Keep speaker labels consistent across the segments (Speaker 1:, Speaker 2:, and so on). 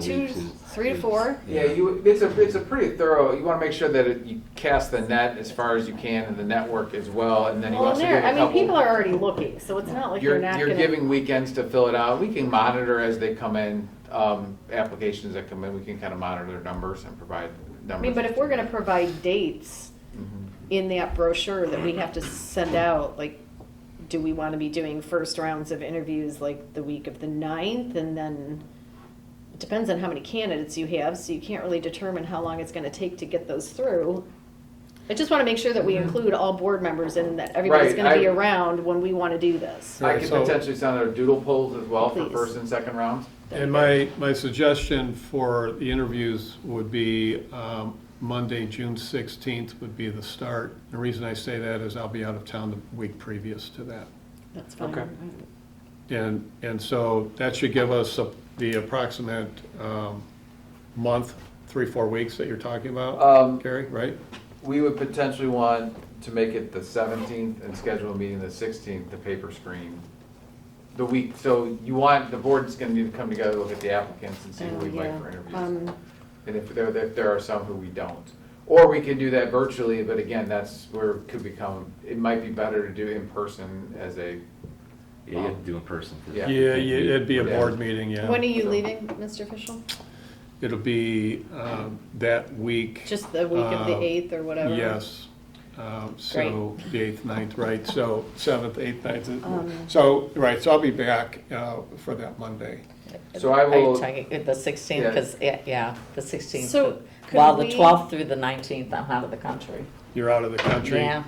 Speaker 1: two, three to four.
Speaker 2: Yeah, you, it's a, it's a pretty thorough, you want to make sure that it- you cast the net as far as you can and the network as well, and then you
Speaker 1: Well,
Speaker 2: also give
Speaker 1: there,
Speaker 2: a
Speaker 1: I mean,
Speaker 2: couple-
Speaker 1: people are already looking, so it's not like you're
Speaker 2: You're,
Speaker 1: not
Speaker 2: you're
Speaker 1: gonna.
Speaker 2: giving weekends to fill it out. We can monitor as they come in, um, applications that come in, we can kind of monitor their numbers and provide numbers.
Speaker 1: I mean, but if we're gonna provide dates
Speaker 2: Mhm.
Speaker 1: in that brochure that we'd have to send out, like, do we wanna be doing first rounds of interviews like the week of the ninth and then? It depends on how many candidates you have, so you can't really determine how long it's gonna take to get those through. I just wanna make sure that we include all board members and that everybody's
Speaker 2: Right,
Speaker 1: gonna be
Speaker 2: I-
Speaker 1: around when we wanna do this.
Speaker 2: I
Speaker 3: Right,
Speaker 2: could
Speaker 3: so-
Speaker 2: potentially send out doodle polls as well for
Speaker 1: Please.
Speaker 2: first and second rounds.
Speaker 3: And my, my suggestion for the interviews would be um, Monday, June 16th would be the start. The reason I say that is I'll be out of town the week previous to that.
Speaker 1: That's fine.
Speaker 2: Okay.
Speaker 3: And, and so that should give us a- the approximate um, month, three, four weeks that you're talking
Speaker 2: Um,
Speaker 3: about, Gary, right?
Speaker 2: We would potentially want to make it the seventeenth and schedule a meeting the sixteenth, the paper screen. The week, so you want, the board's gonna need to come together, look at the applicants and see who
Speaker 1: Oh,
Speaker 2: we'd like
Speaker 1: yeah.
Speaker 2: for interviews.
Speaker 1: Um,
Speaker 2: And if there, if there are some who we don't. Or we can do that virtually, but again, that's where it could become, it might be better to do in person as a,
Speaker 4: Yeah, you have to do in person. 'cause
Speaker 2: Yeah.
Speaker 3: Yeah,
Speaker 4: you
Speaker 3: yeah,
Speaker 4: can't meet.
Speaker 3: it'd be a
Speaker 2: Yeah.
Speaker 3: board meeting, yeah.
Speaker 1: When are you leaving, Mr. Fischel?
Speaker 3: It'll be um, that week.
Speaker 1: Just the week of the
Speaker 3: Uh,
Speaker 1: 8th or whatever?
Speaker 3: Yes. Um, So, the 8th, 9th, right, so 7th, 8th,
Speaker 1: Um,
Speaker 3: 9th, uh, so, right, so I'll be back uh, for that Monday.
Speaker 2: So I
Speaker 5: Are you
Speaker 2: will-
Speaker 5: talking, uh, the sixteenth,
Speaker 2: Yeah.
Speaker 5: because, yeah, the sixteenth,
Speaker 1: So could
Speaker 5: while the
Speaker 1: we-
Speaker 5: twelfth through the nineteenth, I'm out of the country.
Speaker 3: You're out of the country.
Speaker 5: Yeah,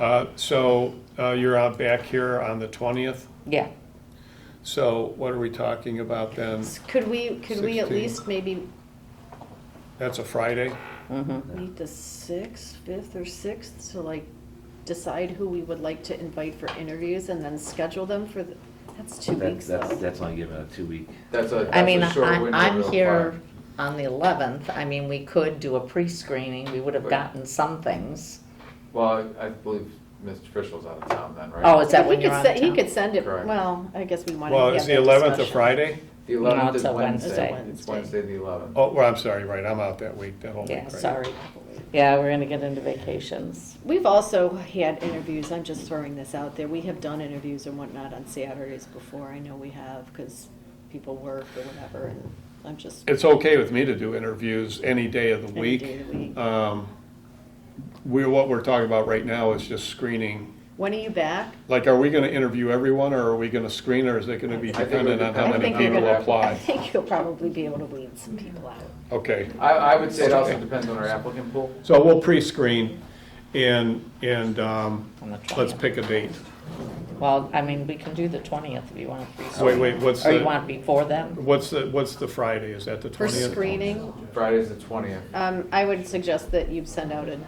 Speaker 3: Uh, So uh, you're out back here on the 20th,
Speaker 5: yeah,
Speaker 3: so what are we talking about then?
Speaker 1: S- Could we, could we at
Speaker 3: 16.
Speaker 1: least maybe
Speaker 3: That's a Friday?
Speaker 5: mm-hmm,
Speaker 1: meet the 6th, 5th or 6th to like decide who we would like to invite for interviews and then schedule them for, the- that's two
Speaker 4: That-
Speaker 1: weeks
Speaker 4: That's,
Speaker 1: though.
Speaker 4: that's only given a two-week.
Speaker 2: that's a,
Speaker 5: I
Speaker 2: that's
Speaker 5: mean,
Speaker 2: a shorter
Speaker 5: I'm,
Speaker 2: window.
Speaker 5: I'm
Speaker 2: real
Speaker 5: here
Speaker 2: quick.
Speaker 5: on the eleventh, I mean, we could do a pre-screening, we would have
Speaker 2: Right.
Speaker 5: gotten some things.
Speaker 2: Well, I I believe Mr. Fischel's out of town then, right?
Speaker 5: Oh, is that
Speaker 1: He
Speaker 5: when
Speaker 1: could
Speaker 5: you're on
Speaker 1: se- He
Speaker 5: town?
Speaker 1: could send it,
Speaker 2: Correct.
Speaker 1: well, I guess we want to
Speaker 3: Well,
Speaker 1: have
Speaker 3: is
Speaker 1: that
Speaker 3: the 11th a
Speaker 1: discussion.
Speaker 3: Friday?
Speaker 2: The eleventh is
Speaker 5: it's a
Speaker 2: Wednesday.
Speaker 1: Wednesday.
Speaker 2: It's Wednesday, the eleventh.
Speaker 3: Oh, well, I'm sorry, right, I'm out that week, that whole week.
Speaker 5: Yeah,
Speaker 3: right?
Speaker 5: sorry. Yeah, we're gonna get into vacations.
Speaker 1: We've also had interviews, I'm just throwing this out there, we have done interviews and whatnot on Saturdays before, I know we have, because people work or whatever, and I'm just.
Speaker 3: It's okay with me to do interviews any day of the
Speaker 1: Any
Speaker 3: week.
Speaker 1: day of the week.
Speaker 3: Um, We, what we're talking about right now is just screening.
Speaker 1: When are you back?
Speaker 3: Like, are we gonna interview everyone, or are we gonna screen, or is it gonna be
Speaker 2: I think
Speaker 3: dependent
Speaker 2: we-
Speaker 3: on how
Speaker 2: I
Speaker 3: many
Speaker 1: think you're
Speaker 3: people
Speaker 1: gonna- I
Speaker 3: apply?
Speaker 1: think you'll probably be able to weed some people out.
Speaker 3: Okay,
Speaker 2: I, I would say it also
Speaker 3: Okay.
Speaker 2: depends on our applicant pool.
Speaker 3: so we'll pre-screen and, and um,
Speaker 5: On the
Speaker 3: let's
Speaker 5: 20th.
Speaker 3: pick a date.
Speaker 5: Well, I mean, we can do the twentieth if you want to.
Speaker 3: Wait, wait, what's
Speaker 5: Or you
Speaker 3: the-
Speaker 5: want before then?
Speaker 3: What's the, what's the Friday? Is that the
Speaker 1: For
Speaker 3: twentieth?
Speaker 1: screening,
Speaker 2: Friday's the twentieth.
Speaker 1: um, I would suggest that you send out a,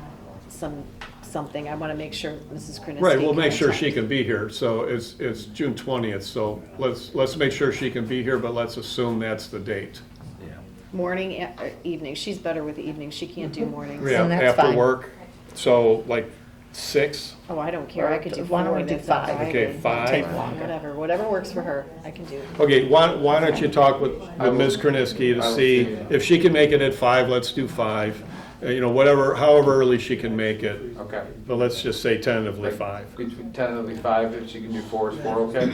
Speaker 1: some, something, I wanna make sure Mrs. Krasinski.
Speaker 3: Right, we'll make sure she
Speaker 1: contacts.
Speaker 3: can be here, so it's, it's June twentieth, so let's, let's make sure she can be here, but let's assume that's the date.
Speaker 4: Yeah.
Speaker 1: Morning, e- or evening, she's better with the evening, she can't do mornings.
Speaker 3: Mm-hmm. Yeah,
Speaker 5: And that's
Speaker 3: after
Speaker 5: fine.
Speaker 3: work, so like six,
Speaker 1: Oh, I don't care, I could do four.
Speaker 5: Why don't we do
Speaker 1: that's not
Speaker 5: five?
Speaker 1: driving.
Speaker 3: okay,
Speaker 5: Take
Speaker 3: five.
Speaker 5: longer.
Speaker 1: Whatever, whatever works for her, I can do.
Speaker 3: Okay, why, why don't you talk with,
Speaker 2: I
Speaker 3: with
Speaker 2: will-
Speaker 3: Ms. Krasinski
Speaker 2: I
Speaker 3: to
Speaker 2: will
Speaker 3: see,
Speaker 2: see.
Speaker 3: if she can make it at five, let's do five. Uh, You know, whatever, however early she can make it,
Speaker 2: Okay.
Speaker 3: but let's just say tentatively five.
Speaker 2: Between ten and five, if she can do four, is four okay?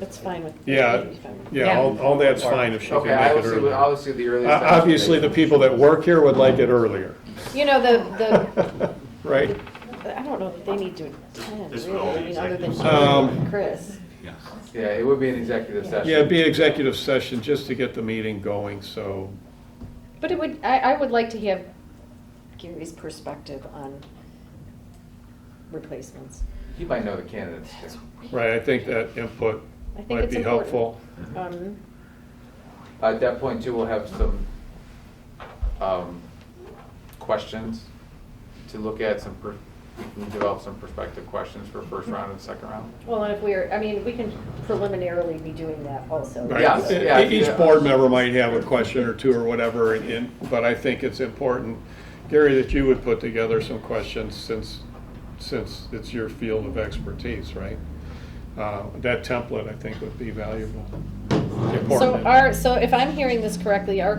Speaker 1: That's fine with.
Speaker 3: Yeah, yeah, all, all that's fine if she can
Speaker 2: Okay, I will
Speaker 3: make it
Speaker 2: see, what-
Speaker 3: earlier.
Speaker 2: I will see the
Speaker 3: O-
Speaker 2: earliest. I can
Speaker 3: Obviously,
Speaker 2: make
Speaker 3: the people that work here would like it earlier,
Speaker 1: You know, the,
Speaker 3: right?
Speaker 1: the, I don't know if they need to attend, really, I mean, other than you
Speaker 3: Um,
Speaker 1: and Chris.
Speaker 4: Yes.
Speaker 2: it. Yeah, it would be an executive session.
Speaker 3: Yeah, it'd be executive session just to get the meeting going, so,
Speaker 1: But it would, I, I would like to have Gary's perspective on replacements.
Speaker 2: He might know the candidates. too.
Speaker 3: right, I think that input
Speaker 1: I think
Speaker 3: might
Speaker 1: it's
Speaker 3: be
Speaker 1: important.
Speaker 3: helpful.
Speaker 1: Um,
Speaker 2: At that point too, we'll have some, um, questions to look at, some, per- we can develop some perspective questions for first round and second round.
Speaker 1: well, and if we're, I mean, we can preliminarily be doing that also.
Speaker 3: Right.
Speaker 2: Yeah,
Speaker 3: E-
Speaker 2: yeah,
Speaker 3: Each
Speaker 2: yeah.
Speaker 3: board member might have a question or two or whatever, and- and, but I think it's important, Gary, that you would put together some questions since, since it's your field of expertise, right? Uh, That template, I think, would be valuable.
Speaker 1: So
Speaker 3: important.
Speaker 1: our, so if I'm hearing this correctly, our